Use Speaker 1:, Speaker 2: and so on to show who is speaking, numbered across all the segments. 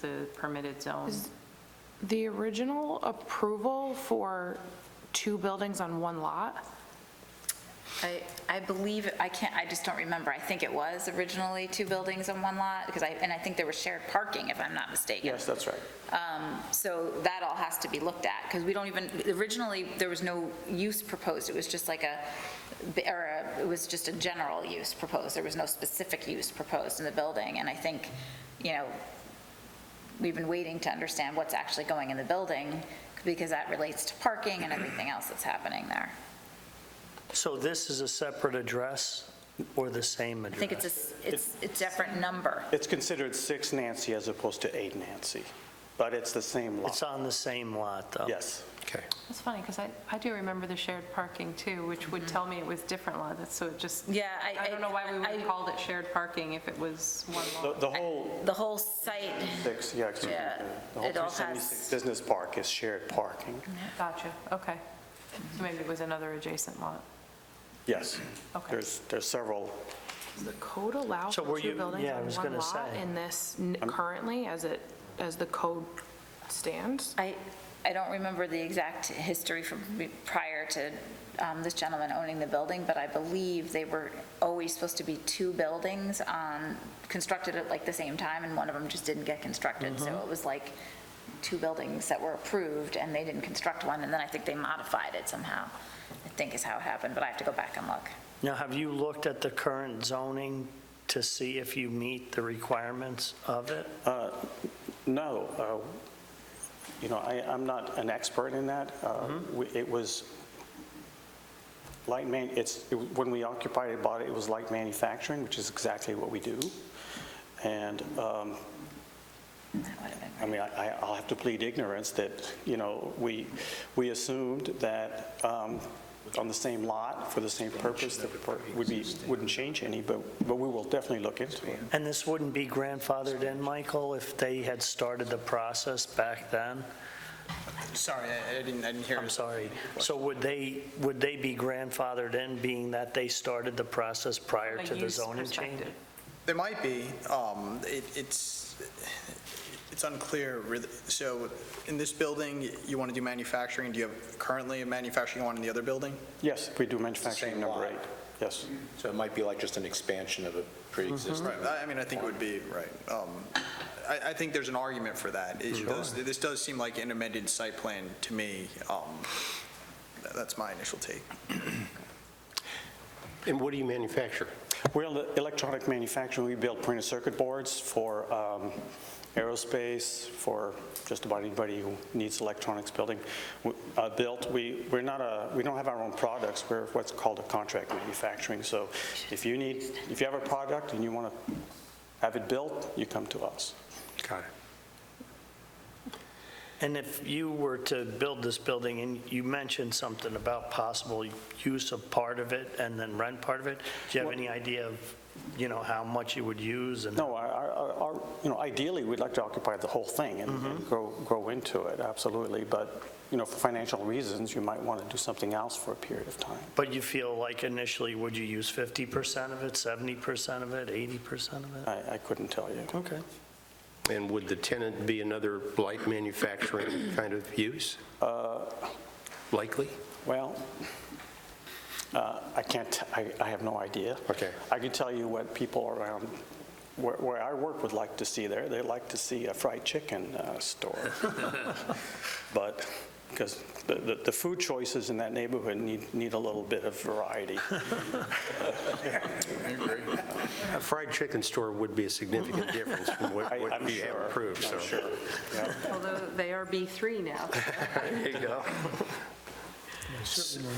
Speaker 1: the permitted zone.
Speaker 2: The original approval for two buildings on one lot,
Speaker 3: I, I believe, I can't, I just don't remember. I think it was originally two buildings on one lot, because I, and I think there was shared parking, if I'm not mistaken. Um,
Speaker 4: Yes, that's right.
Speaker 3: So that all has to be looked at, because we don't even, originally, there was no use proposed. It was just like a, or a- it was just a general use proposed. There was no specific use proposed in the building. And I think, you know, we've been waiting to understand what's actually going in the building, because that relates to parking and everything else that's happening there.
Speaker 5: So this is a separate address or the same address?
Speaker 3: I think it's a, s- it's a different number.
Speaker 4: It's considered 6 Nancy as opposed to 8 Nancy, but it's the same
Speaker 5: It's
Speaker 4: lot.
Speaker 5: on the same lot, though?
Speaker 4: Yes.
Speaker 5: Okay.
Speaker 1: That's funny, because I, I do remember the shared parking too, which would tell me it was different lot, that's- so it just.
Speaker 3: Yeah, I-
Speaker 1: Mm-hmm. I don't know why we would have
Speaker 3: I-
Speaker 1: called it shared parking if it was one lot.
Speaker 4: The the whole
Speaker 3: The whole site,
Speaker 4: 6, yeah, excuse me.
Speaker 3: Yeah,
Speaker 4: The whole
Speaker 3: it all has-
Speaker 4: 376 Business Park is shared parking.
Speaker 1: Gotcha, okay. So maybe it was another adjacent lot.
Speaker 4: Yes.
Speaker 1: Okay.
Speaker 4: There's, there's several,
Speaker 2: does the code allow
Speaker 5: So
Speaker 2: for
Speaker 5: were
Speaker 2: two
Speaker 5: you-
Speaker 2: buildings
Speaker 5: yeah, I
Speaker 2: on
Speaker 5: was
Speaker 2: one
Speaker 5: gonna
Speaker 2: lot
Speaker 5: say.
Speaker 2: in this n- currently as it, as the code stands?
Speaker 3: I, I don't remember the exact history from be- prior to um, this gentleman owning the building, but I believe they were always supposed to be two buildings on, constructed at like the same time, and one of them just didn't get constructed. So it was like two buildings that were approved, and they didn't construct one, and then I think they modified it somehow, I think is how it happened, but I have to go back and look.
Speaker 5: Now, have you looked at the current zoning to see if you meet the requirements of it?
Speaker 4: uh, no, uh, you know, I, I'm not an expert in that. Uh,
Speaker 3: Mm-hmm.
Speaker 4: we- It was light man, it's, it- when we occupied it, bought it, it was light manufacturing, which is exactly what we do. And um,
Speaker 3: That would have been
Speaker 4: I mean, I, I- I'll have to plead ignorance that, you know, we, we assumed that um, on the same lot, for the same purpose, that it would be, wouldn't change any, but, but we will definitely look into it.
Speaker 5: And this wouldn't be grandfathered in, Michael, if they had started the process back then?
Speaker 6: Sorry, I I didn't, I didn't hear.
Speaker 5: I'm sorry. So would they, would they be grandfathered in, being that they started the process prior
Speaker 1: From a
Speaker 5: to the
Speaker 1: use
Speaker 5: zoning change?
Speaker 1: perspective.
Speaker 6: There might be, um, it- it's, it's unclear, really. so in this building, you want to do manufacturing, do you have currently a manufacturing one in the other building?
Speaker 4: Yes, we do manufacturing
Speaker 6: same
Speaker 4: number
Speaker 6: lot.
Speaker 4: eight. Yes.
Speaker 7: So it might be like just an expansion of a pre-existing.
Speaker 6: I I mean, I think it would be, right, um, I, I think there's an argument for that. It does- This does seem like an amended site plan to me, um, tha- that's my initial take.
Speaker 7: And what do you manufacture?
Speaker 4: We're in the electronic manufacturing, we build printed circuit boards for um, aerospace, for just about anybody who needs electronics building, w- uh, built. We, we're not a, we don't have our own products, we're what's called a contract manufacturing. So if you need, if you have a product and you want to have it built, you come to us.
Speaker 7: Got it.
Speaker 5: And if you were to build this building, and you mentioned something about possible use of part of it and then rent part of it, do you have any idea of, you know, how much you would use and?
Speaker 4: No, our- our, our- our, you know, ideally, we'd like to occupy the whole thing and and grow, grow into it, absolutely. But, you know, for financial reasons, you might want to do something else for a period of time.
Speaker 5: But you feel like initially, would you use 50% of it, 70% of it, 80% of it?
Speaker 4: I, I couldn't tell you.
Speaker 5: Okay.
Speaker 7: And would the tenant be another light manufacturing kind of use? Uh, Likely?
Speaker 4: Well, uh, I can't, t- I I have no idea.
Speaker 7: Okay.
Speaker 4: I can tell you what people around, where- where I work would like to see there. They like to see a fried chicken uh, store. But, because the- the the food choices in that neighborhood need need a little bit of variety.
Speaker 7: A fried chicken store would be a significant difference from what
Speaker 4: I-
Speaker 7: what
Speaker 4: I'm
Speaker 7: you have
Speaker 4: sure.
Speaker 7: approved, so.
Speaker 4: I'm sure. Yeah.
Speaker 1: Although they are B3 now.
Speaker 7: There you go.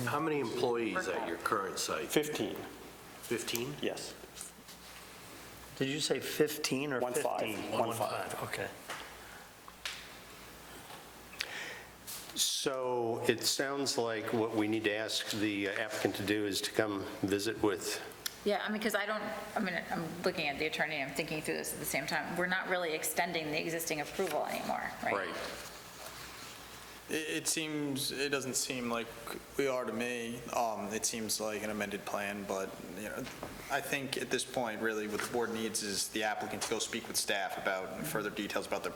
Speaker 8: How many employees at your current site?
Speaker 4: 15,
Speaker 8: 15?
Speaker 4: yes.
Speaker 5: Did you say 15 or
Speaker 4: One
Speaker 5: 15?
Speaker 4: five, one five.
Speaker 5: okay.
Speaker 7: So it sounds like what we need to ask the applicant to do is to come visit with
Speaker 3: Yeah, I mean, because I don't, I mean, I'm looking at the attorney, I'm thinking through this at the same time. We're not really extending the existing approval anymore, right?
Speaker 7: Right.
Speaker 6: It, it seems, it doesn't seem like we are to me. Um, It seems like an amended plan, but, you know, I think at this point, really, what the board needs is the applicant to go speak with staff about further details about their